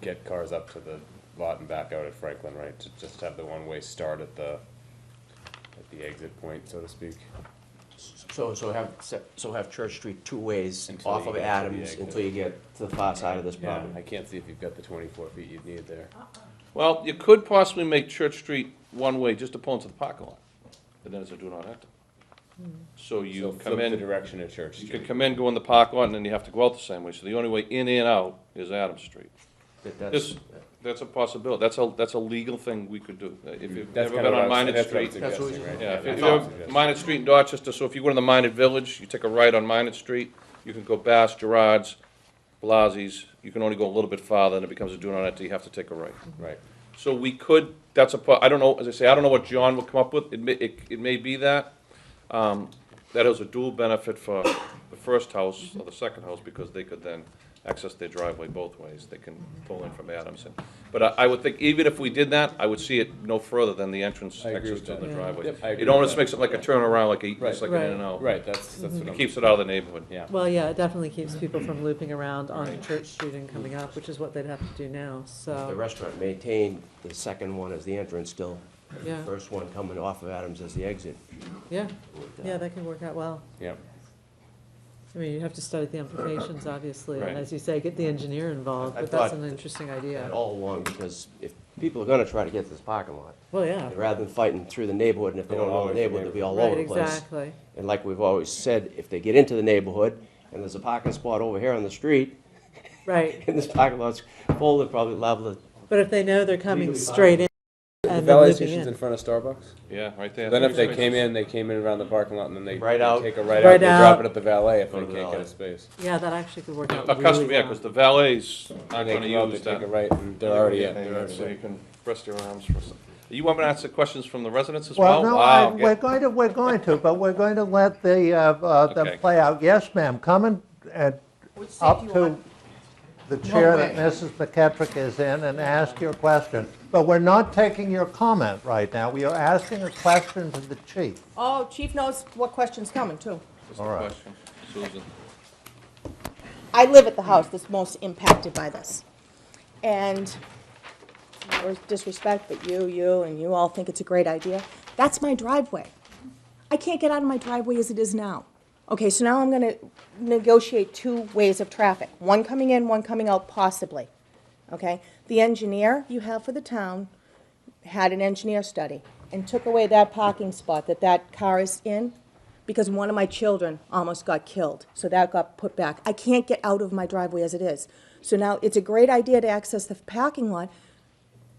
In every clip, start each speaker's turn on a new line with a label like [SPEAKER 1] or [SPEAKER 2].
[SPEAKER 1] get cars up to the lot and back out at Franklin, right? To just have the one-way start at the, at the exit point, so to speak.
[SPEAKER 2] So, so have, so have Church Street two ways
[SPEAKER 1] Until
[SPEAKER 2] off
[SPEAKER 1] you
[SPEAKER 2] of
[SPEAKER 1] get to the
[SPEAKER 2] Adams
[SPEAKER 1] exit.
[SPEAKER 2] until you get to the far side of this
[SPEAKER 1] Yeah, I
[SPEAKER 2] property.
[SPEAKER 1] can't see if you've got the twenty-four feet you'd need there.
[SPEAKER 3] Uh,
[SPEAKER 4] Well, you could possibly make Church Street one-way just to pull into the parking lot, and then it's a do not enter. So
[SPEAKER 1] So
[SPEAKER 4] you
[SPEAKER 1] flip
[SPEAKER 4] come
[SPEAKER 1] the
[SPEAKER 4] in,
[SPEAKER 1] direction of Church
[SPEAKER 4] you could
[SPEAKER 1] Street.
[SPEAKER 4] come in, go in the parking lot, and then you have to go out the same way, so the only way in and out is Adams Street.
[SPEAKER 2] That- that's-
[SPEAKER 4] This, that's a possibility, that's a, that's a legal thing we could do, Uh, if you've
[SPEAKER 1] That's
[SPEAKER 4] never
[SPEAKER 1] kind of
[SPEAKER 4] been
[SPEAKER 1] what I
[SPEAKER 4] on
[SPEAKER 1] was,
[SPEAKER 4] Minot
[SPEAKER 1] that's what I'm
[SPEAKER 4] Street.
[SPEAKER 2] That's what
[SPEAKER 1] suggesting,
[SPEAKER 2] we-
[SPEAKER 1] right?
[SPEAKER 4] Yeah, if you
[SPEAKER 1] That's
[SPEAKER 4] if
[SPEAKER 1] what I'm
[SPEAKER 4] you have
[SPEAKER 1] suggesting.
[SPEAKER 4] Minot Street in Dorchester, so if you go to the Minot Village, you take a right on Minot Street, you can go Bass, Gerard's, Blasi's, you can only go a little bit farther, and it becomes a do not enter, you have to take a right.
[SPEAKER 1] Right.
[SPEAKER 4] So we could, that's a, po- I don't know, as I say, I don't know what John will come up with, it may, it, it may be that. Um, that is a dual benefit for the first house or the second house, because they could then access their driveway both ways, they can pull in from Adamson. But I, I would think, even if we did that, I would see it no further than the entrance
[SPEAKER 1] I agree
[SPEAKER 4] access
[SPEAKER 1] with
[SPEAKER 4] to
[SPEAKER 1] that.
[SPEAKER 4] the
[SPEAKER 1] Yeah.
[SPEAKER 4] driveway.
[SPEAKER 1] Yep, I agree
[SPEAKER 4] It
[SPEAKER 1] with
[SPEAKER 4] almost
[SPEAKER 1] that.
[SPEAKER 4] makes it like a turnaround, like a,
[SPEAKER 1] Right.
[SPEAKER 4] just like an in
[SPEAKER 3] Right.
[SPEAKER 4] and out.
[SPEAKER 1] Right, that's, that's what
[SPEAKER 4] It
[SPEAKER 1] I'm.
[SPEAKER 4] Keeps it out of the neighborhood.
[SPEAKER 1] Yeah.
[SPEAKER 3] Well, yeah, it definitely keeps people from looping around onto Church Street and coming up, which is what they'd have to do now,
[SPEAKER 2] The
[SPEAKER 3] so,
[SPEAKER 2] restaurant maintained the second one as the entrance still,
[SPEAKER 3] yeah,
[SPEAKER 2] first one coming off of Adams as the exit.
[SPEAKER 3] yeah, yeah, that could work out well.
[SPEAKER 1] Yeah,
[SPEAKER 3] I mean, you have to study the implications, obviously,
[SPEAKER 4] Right.
[SPEAKER 3] and as you say, get the engineer involved,
[SPEAKER 2] I- I
[SPEAKER 3] but that's
[SPEAKER 2] thought
[SPEAKER 3] an interesting
[SPEAKER 2] That
[SPEAKER 3] idea.
[SPEAKER 2] all along, because if people are gonna try to get to this parking lot,
[SPEAKER 3] Well, yeah,
[SPEAKER 2] rather than fighting through the neighborhood, and if they don't know the neighborhood, they'll be all over
[SPEAKER 3] right,
[SPEAKER 2] the place.
[SPEAKER 3] exactly,
[SPEAKER 2] And like we've always said, if they get into the neighborhood, and there's a parking spot over here on the street,
[SPEAKER 3] right.
[SPEAKER 2] and this parking lot's full, they're probably liable to
[SPEAKER 3] But if they know they're coming straight in and then
[SPEAKER 1] valet
[SPEAKER 3] looping
[SPEAKER 1] station's in
[SPEAKER 3] in,
[SPEAKER 1] front of Starbucks?
[SPEAKER 4] Yeah, right there.
[SPEAKER 1] Then if they came in, they came in around the parking lot and then they.
[SPEAKER 2] Right
[SPEAKER 1] they
[SPEAKER 2] out.
[SPEAKER 1] Take a right out,
[SPEAKER 3] Right
[SPEAKER 1] they drop
[SPEAKER 3] out.
[SPEAKER 1] it at the valet if they
[SPEAKER 2] Go to the
[SPEAKER 1] can't get a
[SPEAKER 2] valet.
[SPEAKER 1] space.
[SPEAKER 3] yeah, that actually could work out
[SPEAKER 4] A
[SPEAKER 3] really
[SPEAKER 4] customer, yeah,
[SPEAKER 3] well.
[SPEAKER 4] because the valets
[SPEAKER 1] And
[SPEAKER 4] aren't
[SPEAKER 1] they
[SPEAKER 4] gonna
[SPEAKER 1] come out, they
[SPEAKER 4] use
[SPEAKER 1] take a
[SPEAKER 4] that.
[SPEAKER 1] right and they're already in.
[SPEAKER 4] Yeah,
[SPEAKER 1] They're
[SPEAKER 4] So you
[SPEAKER 1] already
[SPEAKER 4] can rest your arms for a second. You want me to answer questions from the residents as well?
[SPEAKER 5] Well, no,
[SPEAKER 4] Wow,
[SPEAKER 5] I-
[SPEAKER 4] okay.
[SPEAKER 5] we're going to, we're going to, but we're going to let the, uh, uh,
[SPEAKER 4] Okay.
[SPEAKER 5] them play out. Yes, ma'am, come and, and up to the chair that Mrs. McKetrick is in and ask your question. But we're not taking your comment right now. We are asking a question to the chief.
[SPEAKER 6] Oh, chief knows what question's coming, too.
[SPEAKER 4] Just a
[SPEAKER 5] All right.
[SPEAKER 4] question. Susan,
[SPEAKER 6] I live at the house that's most impacted by this. And no disrespect, but you, you, and you all think it's a great idea. That's my driveway. I can't get out of my driveway as it is now. Okay, so now I'm gonna negotiate two ways of traffic, one coming in, one coming out possibly. Okay? The engineer you have for the town had an engineer study and took away that parking spot that that car is in because one of my children almost got killed, so that got put back. I can't get out of my driveway as it is. So now it's a great idea to access the parking lot.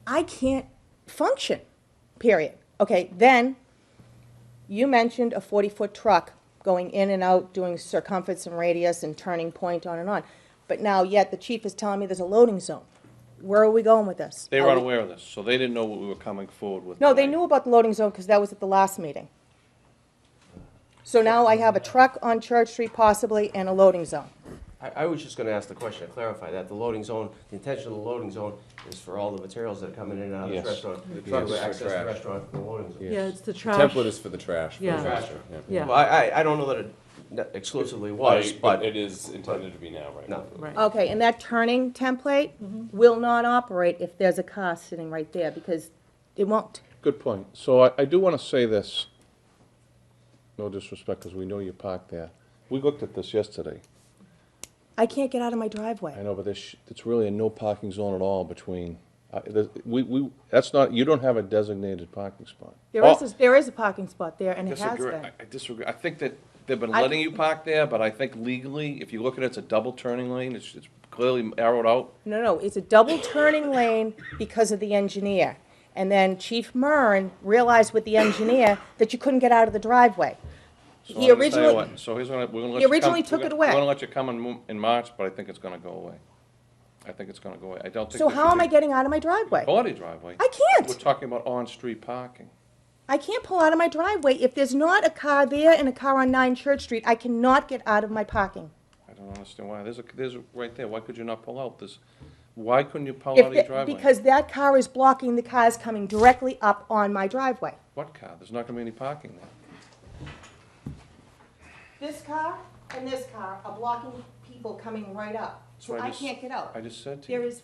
[SPEAKER 6] I can't function, period. Okay, then you mentioned a 40-foot truck going in and out, doing circumference and radius and turning point on and on. But now yet the chief is telling me there's a loading zone. Where are we going with this?
[SPEAKER 4] they
[SPEAKER 6] Are
[SPEAKER 4] were
[SPEAKER 6] we-
[SPEAKER 4] unaware of this, so they didn't know what we were coming forward with.
[SPEAKER 6] no, they
[SPEAKER 4] tonight.
[SPEAKER 6] knew about the loading zone because that was at the last meeting. So now I have a truck on Church Street possibly and a loading zone.
[SPEAKER 2] I, I was just gonna ask the question, to clarify that, the loading zone, the intention of the loading zone is for all the materials that are coming in and out of
[SPEAKER 1] Yes.
[SPEAKER 2] this restaurant.
[SPEAKER 1] The
[SPEAKER 2] You
[SPEAKER 1] trucks
[SPEAKER 2] will
[SPEAKER 1] for
[SPEAKER 2] access
[SPEAKER 1] trash.
[SPEAKER 2] the restaurant from the loading zone.
[SPEAKER 3] Yeah, it's the
[SPEAKER 1] in.
[SPEAKER 3] trash,
[SPEAKER 1] Template is for the trash. for the
[SPEAKER 3] Yeah.
[SPEAKER 1] trash, yeah.
[SPEAKER 2] Well,
[SPEAKER 3] yeah,
[SPEAKER 2] I, I, I don't know that it ne- exclusively was,
[SPEAKER 1] Right, But
[SPEAKER 2] but,
[SPEAKER 1] it is intended to be now, right?
[SPEAKER 2] no.
[SPEAKER 3] right.
[SPEAKER 6] Okay, and that turning template will not operate if there's a car sitting right there because it won't.
[SPEAKER 4] Good point. So I, I do want to say this, no disrespect, because we know you parked there. We looked at this yesterday.
[SPEAKER 6] I can't get out of my
[SPEAKER 4] I
[SPEAKER 6] driveway.
[SPEAKER 4] know, but there's, it's really a no parking zone at all between, uh, there's- we, we, that's not, you don't have a designated parking spot.
[SPEAKER 6] There is, a- there is a parking spot there and it has
[SPEAKER 4] Disagree, Oh. I
[SPEAKER 6] been.
[SPEAKER 4] I disagree. I think that they've been
[SPEAKER 6] I-
[SPEAKER 4] letting you park there, but I think legally, if you look at it, it's a double turning lane. It's, it's clearly arrowed out.
[SPEAKER 6] No, no, it's a double turning lane because of the engineer. And then Chief Murn realized with the engineer that you couldn't get out of the driveway.
[SPEAKER 4] So
[SPEAKER 6] He
[SPEAKER 4] I'm gonna tell you
[SPEAKER 6] originally-
[SPEAKER 4] what, So here's what, I- we're gonna let
[SPEAKER 6] He
[SPEAKER 4] you come.
[SPEAKER 6] originally
[SPEAKER 4] we're
[SPEAKER 6] took it
[SPEAKER 4] gonna-
[SPEAKER 6] away.
[SPEAKER 4] We're gonna let you come in, mo- in March, but I think it's gonna go away. I think it's gonna go away. I don't think.
[SPEAKER 6] So
[SPEAKER 4] there should
[SPEAKER 6] how am
[SPEAKER 4] be
[SPEAKER 6] I getting out of my driveway?
[SPEAKER 4] Body driveway.
[SPEAKER 6] I can't.
[SPEAKER 4] We're talking about on-street parking.
[SPEAKER 6] I can't pull out of my driveway. If there's not a car there and a car on 9 Church Street, I cannot get out of my parking.
[SPEAKER 4] I don't understand why. There's a, there's a, right there. Why could you not pull out this? Why couldn't you pull out
[SPEAKER 6] If
[SPEAKER 4] of your
[SPEAKER 6] the-
[SPEAKER 4] driveway?
[SPEAKER 6] Because that car is blocking the cars coming directly up on my driveway.
[SPEAKER 4] What car? There's not gonna be any parking there.
[SPEAKER 6] This car and this car are blocking people coming right up.
[SPEAKER 4] So I just- I just said to you.
[SPEAKER 6] is